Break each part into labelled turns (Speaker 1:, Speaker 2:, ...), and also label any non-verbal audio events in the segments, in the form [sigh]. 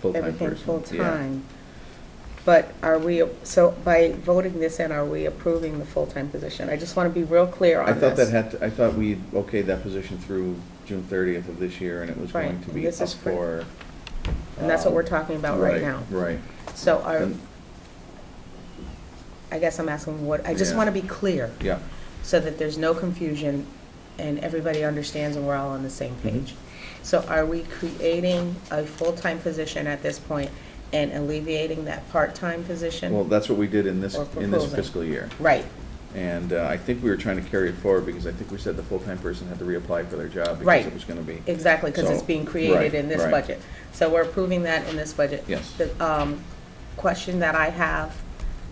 Speaker 1: full-time
Speaker 2: everything
Speaker 1: person. Yeah.
Speaker 2: full-time. But are we, so by voting this in, are we approving the full-time position? I just want to be real clear on
Speaker 1: I
Speaker 2: this.
Speaker 1: thought that had, to- I thought we okayed that position through June thirtieth of this year, and it was
Speaker 2: Right,
Speaker 1: going to
Speaker 2: and
Speaker 1: be up
Speaker 2: this is
Speaker 1: for.
Speaker 2: for- And that's what
Speaker 1: um,
Speaker 2: we're talking about right now.
Speaker 1: Right,
Speaker 2: So are,
Speaker 1: And-
Speaker 2: I guess I'm asking what, I just
Speaker 1: Yeah.
Speaker 2: want to be clear
Speaker 1: yeah.
Speaker 2: so that there's no confusion and everybody understands and we're all on the same
Speaker 1: Mm-hmm.
Speaker 2: page. So are we creating a full-time position at this point and alleviating that part-time position?
Speaker 1: Well, that's what we did in this,
Speaker 2: Or
Speaker 1: in this
Speaker 2: proposing.
Speaker 1: fiscal year.
Speaker 2: Right,
Speaker 1: And uh, I think we were trying to carry it forward, because I think we said the full-time person had to reapply for their job, because
Speaker 2: Right.
Speaker 1: it was gonna be.
Speaker 2: exactly, because it's
Speaker 1: So,
Speaker 2: being
Speaker 1: right,
Speaker 2: created in this
Speaker 1: right.
Speaker 2: budget. So we're approving that in this budget.
Speaker 1: Yes.
Speaker 2: The um, question that I have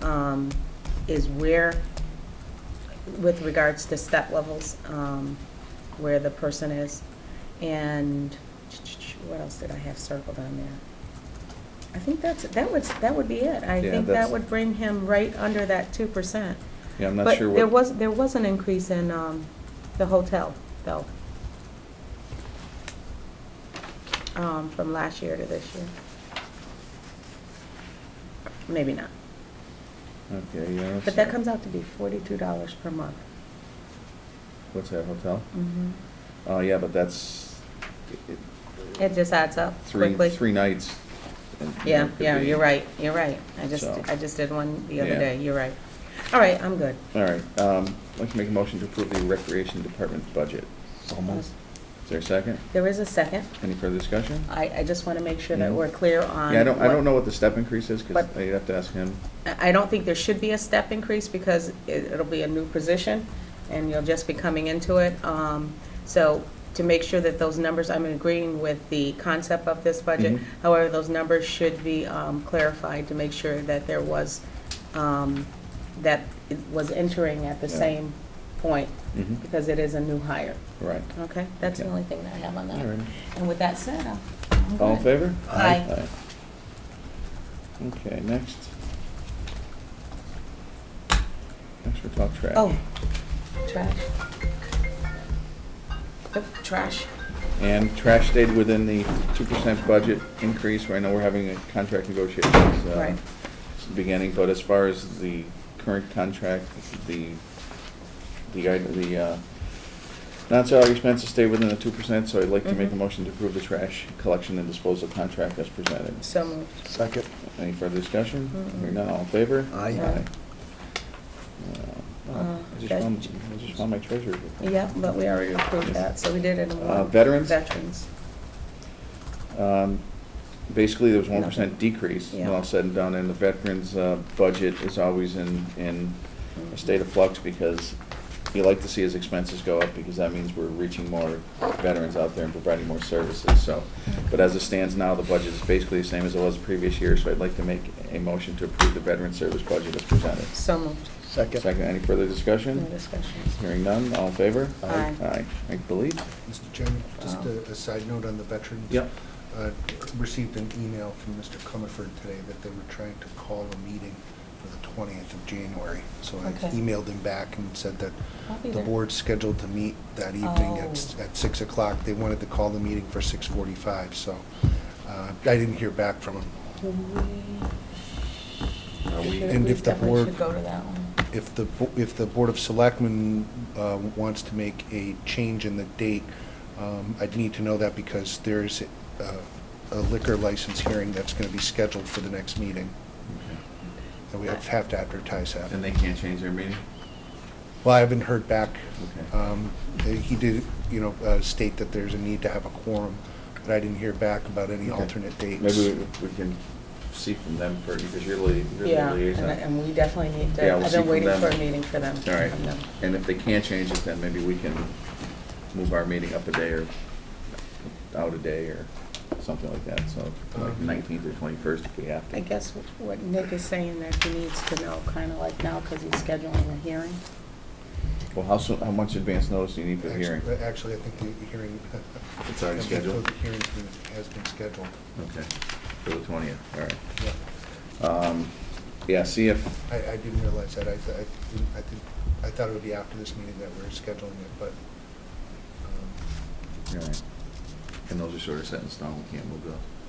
Speaker 2: um, is where, with regards to step levels, um, where the person is, and what else did I have circled on there? I think that's, that would, that would be it. I
Speaker 1: Yeah,
Speaker 2: think
Speaker 1: that's-
Speaker 2: that would bring him right under that 2%.
Speaker 1: Yeah, I'm not sure
Speaker 2: But
Speaker 1: what.
Speaker 2: there was, there was an increase in um, the hotel, though, um, from last year to this year. Maybe not,
Speaker 1: Okay, yeah. let's
Speaker 2: but that
Speaker 1: see.
Speaker 2: comes out to be forty-two dollars per month.
Speaker 1: What's that, hotel?
Speaker 2: Mhm.
Speaker 1: Oh, yeah, but that's it- it-
Speaker 2: It just adds up
Speaker 1: three,
Speaker 2: quickly.
Speaker 1: three nights. and, you know,
Speaker 2: Yeah,
Speaker 1: could
Speaker 2: yeah,
Speaker 1: be-
Speaker 2: you're right, you're right. I just,
Speaker 1: So-
Speaker 2: I just did one the other
Speaker 1: Yeah.
Speaker 2: day, you're right. All right, I'm good.
Speaker 1: All right, um, I'd like to make a motion to approve the recreation department budget. Is there a second?
Speaker 2: There is a second.
Speaker 1: Any further discussion?
Speaker 2: I, I just want to make sure that
Speaker 1: Mhm.
Speaker 2: we're clear on.
Speaker 1: Yeah, I don't, I
Speaker 2: what-
Speaker 1: don't know what the step increase is, because
Speaker 2: But-
Speaker 1: I have to ask him.
Speaker 2: I I don't think there should be a step increase because it- it'll be a new position and you'll just be coming into it. Um, So to make sure that those numbers, I'm agreeing with the concept of this budget.
Speaker 1: Mhm.
Speaker 2: However, those numbers should be um, clarified to make sure that there was, um, that it was entering at the
Speaker 1: Yeah.
Speaker 2: same point
Speaker 1: Mhm.
Speaker 2: because it is a new hire.
Speaker 1: Right.
Speaker 2: Okay? That's the
Speaker 1: Okay.
Speaker 2: only thing that I have on that.
Speaker 1: All right.
Speaker 2: And with that said, I'll. I'm
Speaker 1: All in
Speaker 2: good.
Speaker 1: favor?
Speaker 2: Aye.
Speaker 1: Aye. Okay, next. Next, we'll talk trash.
Speaker 2: Oh, trash. Oh, Trash.
Speaker 1: And trash stayed within the two percent budget increase, I know we're having a contract negotiations, uh,
Speaker 2: Right.
Speaker 1: s- beginning, but as far as the current contract, the, the, item- the, uh, non-salary expenses stay within the two percent, so I'd like to make a
Speaker 2: Mhm.
Speaker 1: motion to approve the trash collection and disposal contract as presented.
Speaker 2: So moved.
Speaker 3: Second.
Speaker 1: Any further discussion?
Speaker 2: Mm-mm.
Speaker 1: Hearing none, all in favor?
Speaker 3: Aye.
Speaker 2: Aye.
Speaker 1: Uh,
Speaker 2: Uh,
Speaker 1: I just
Speaker 2: that-
Speaker 1: found, I just found my treasure.
Speaker 2: Yeah, but we already approved that, so we did it in
Speaker 1: Uh,
Speaker 2: one.
Speaker 1: veterans?
Speaker 2: Veterans.
Speaker 1: Um, Basically, there was one
Speaker 2: Nothing.
Speaker 1: percent decrease, when
Speaker 2: Yeah.
Speaker 1: all said and done, and the veterans' uh, budget is always in, in a state of flux because you like to see his expenses go up because that means we're reaching more veterans out there and providing more services, so. But as it stands now, the budget is basically the same as it was the previous year, so I'd like to make a motion to approve the veteran service budget as presented.
Speaker 2: So moved.
Speaker 3: Second.
Speaker 1: Second, any further
Speaker 2: No
Speaker 1: discussion?
Speaker 2: discussions.
Speaker 1: Hearing none, all in favor?
Speaker 2: Aye.
Speaker 1: Aye, I believe.
Speaker 3: Mr. Chairman, just
Speaker 2: Um,
Speaker 3: a a side note on the veterans.
Speaker 1: Yep.
Speaker 3: Uh, Received an email from Mr. Comerford today that they were trying to call a meeting for the 20th of January. So I
Speaker 2: Okay.
Speaker 3: emailed him back and said that
Speaker 2: I'll be
Speaker 3: the
Speaker 2: there.
Speaker 3: board's scheduled to meet that evening at s-
Speaker 2: Oh.
Speaker 3: at 6 o'clock. They wanted to call the meeting for 6:45, so uh, I didn't hear back from him.
Speaker 2: We should-
Speaker 3: And
Speaker 2: we
Speaker 3: if the
Speaker 2: definitely
Speaker 3: board-
Speaker 2: should go to that one.
Speaker 3: If the, bo- if the Board of Selectmen uh, wants to make a change in the date, um, I'd need to know that because there's uh, a liquor license hearing that's going to be scheduled for the next meeting, and we have have to advertise that.
Speaker 1: And they can't change their meeting?
Speaker 3: Well, I haven't heard back.
Speaker 1: Okay.
Speaker 3: Um, He did, you know, uh, state that there's a need to have a quorum, but I didn't hear back about any
Speaker 1: Okay.
Speaker 3: alternate dates.
Speaker 1: Maybe we- we can see from them for, because you're lia- you're
Speaker 2: Yeah,
Speaker 1: the
Speaker 2: and
Speaker 1: liaison.
Speaker 2: I- and we definitely need
Speaker 1: Yeah,
Speaker 2: to,
Speaker 1: we'll
Speaker 2: I've
Speaker 1: see
Speaker 2: been
Speaker 1: from
Speaker 2: waiting
Speaker 1: them.
Speaker 2: for a meeting for them.
Speaker 1: All right,
Speaker 2: from them.
Speaker 1: and if they can't change it, then maybe we can move our meeting up a day or out a day or something like that, so like
Speaker 3: Um,
Speaker 1: nineteenth or twenty-first if we have to.
Speaker 2: I guess what Nick is saying that he needs to know kind of like now because he's scheduling a hearing.
Speaker 1: Well, how soon, how much advance notice do you need for the
Speaker 3: Actu-
Speaker 1: hearing?
Speaker 3: Actually, I think the hearing. [laughs]
Speaker 1: It's already
Speaker 3: I think
Speaker 1: scheduled?
Speaker 3: The hearing has been scheduled.
Speaker 1: Okay, for the twentieth, all right.
Speaker 3: uh, Yeah.
Speaker 1: Um, Yeah, see if,
Speaker 3: I, I didn't realize that. I, th- I didn't, I think, I thought it would be after this meeting that we're scheduling it, but, um,
Speaker 1: all right. And those are sort of set in stone, we can't move those.